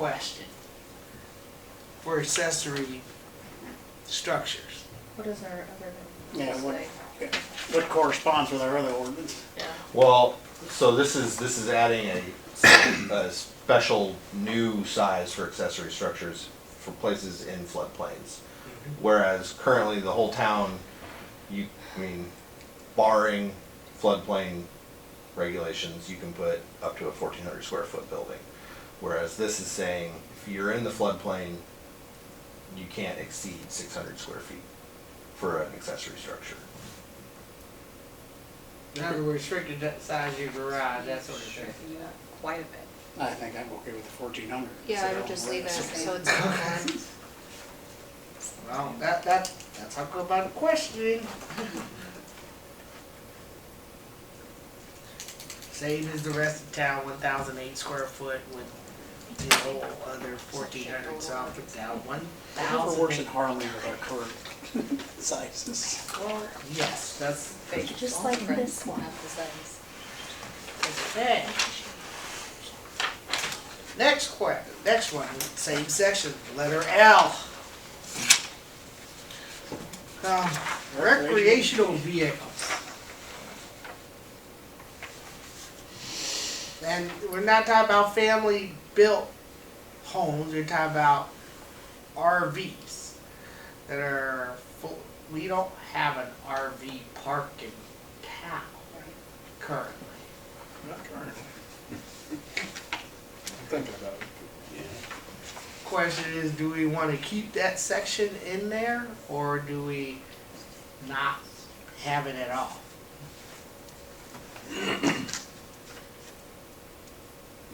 question for accessory structures. What is our other Yeah, one? what, what corresponds with our other ordinance? Yeah. Well, so this is, this is adding a, a special new size for accessory structures for places in floodplains. Whereas currently the whole town, you, I mean, barring floodplain regulations, you can put up to a fourteen hundred square foot building. Whereas this is saying, if you're in the floodplain, you can't exceed six hundred square feet for an accessory structure. In other words, restricted to the size of your garage, that sort of thing. Striking it up Quite a bit. I think I'm okay with the fourteen hundred. Yeah, I would just leave it, so it's on. Well, that, that, that's how come about questioning. Same as the rest of town, one thousand eight square foot with the whole other fourteen hundred, so I'll put down one Whoever works thousand. in Harlem with our current sizes. Or Yes, that's, big. Just like Different. this one. Not the size. okay. Next que, next one, same section, letter L. Um, recreational vehicles. And we're not talking about family-built homes, we're talking about RVs that are full, we don't have an RV park in town currently. Not current. Thinking about it. Question is, do we wanna keep that section in there, or do we not have it at all?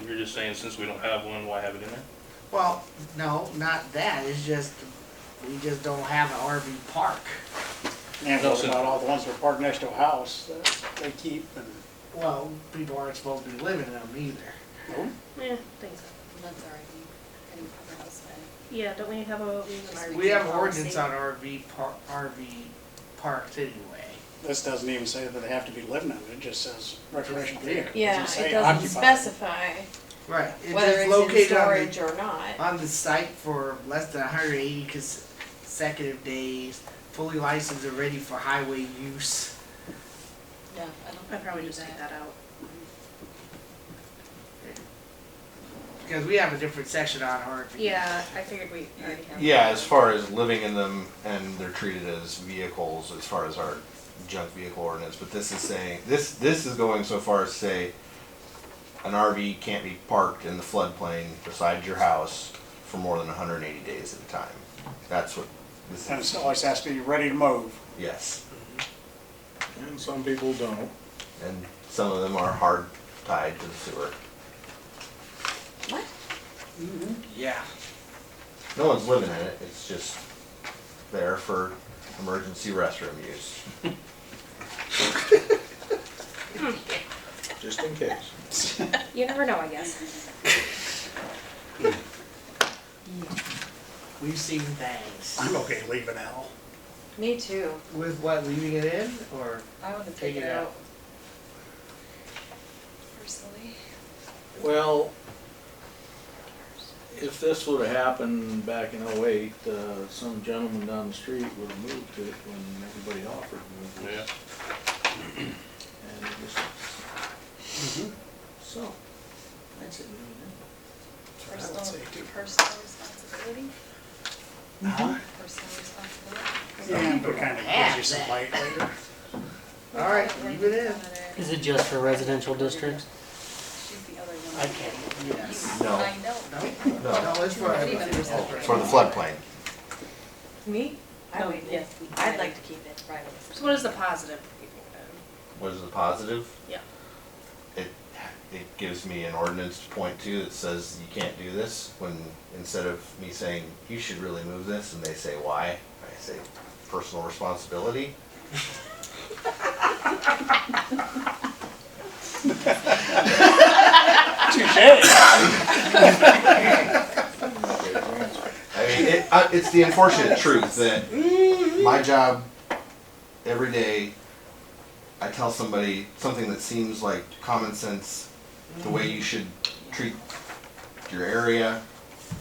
You're just saying since we don't have one, why have it in there? Well, no, not that, it's just, we just don't have an RV park. And what about all the ones that are parked next to a house that they keep and, Well, people aren't supposed to be living in them either. Yeah, thanks. That's already in the house, but Yeah, don't we have a, we have an We have RV ordinance policy? on RV par, RV parks anyway. this doesn't even say that they have to be living in it, it just says recreational vehicle. Yeah, doesn't it say doesn't occupied. specify Right. It's whether just it's in located on the- storage or not. on the site for less than 180 consecutive days, fully licensed and ready for highway use. no, I don't. I'd probably just take that out. Because we have a different section on RV. Yeah, I figured we already have. Yeah, as far as living in them and they're treated as vehicles, as far as our junk vehicle ordinance, but this is saying, this, this is going so far as to say an RV can't be parked in the floodplain beside your house for more than hundred and eighty days at a time. That's what this And it is, always has to be ready to move. yes, And some people don't. and some of them are hard tied to the sewer. What? Yeah. No one's living in it, it's just there for emergency restroom use. Just in case. You never know, I guess. We've seen things. I'm okay leaving L. Me too. With what, leaving it in or? I want to Take take it it out. out. Personally. Well, if this would've happened back in oh-eight, uh, some gentleman down the street would've moved it when everybody offered to move it. And it just, so, that's it. would say Personal, do- personal responsibility, personal Yeah, responsibility. but kind of gives you some light later. All right, leave it in. Is it just for residential districts? Shoot the other one. I can't. Yes. No. I know. No? No, No, it's for everybody. for the floodplain. Me? I No, would, yeah. I'd like to keep it. Right. So what is the positive? um, What is the positive? Yeah. It, it gives me an ordinance to point to that says you can't do this, when instead of me saying, you should really move this, and they say, why? I say, personal responsibility. Touche. I mean, it, uh, it's the unfortunate truth that my job, every day, I tell somebody something that seems like common sense, the way you should treat your area,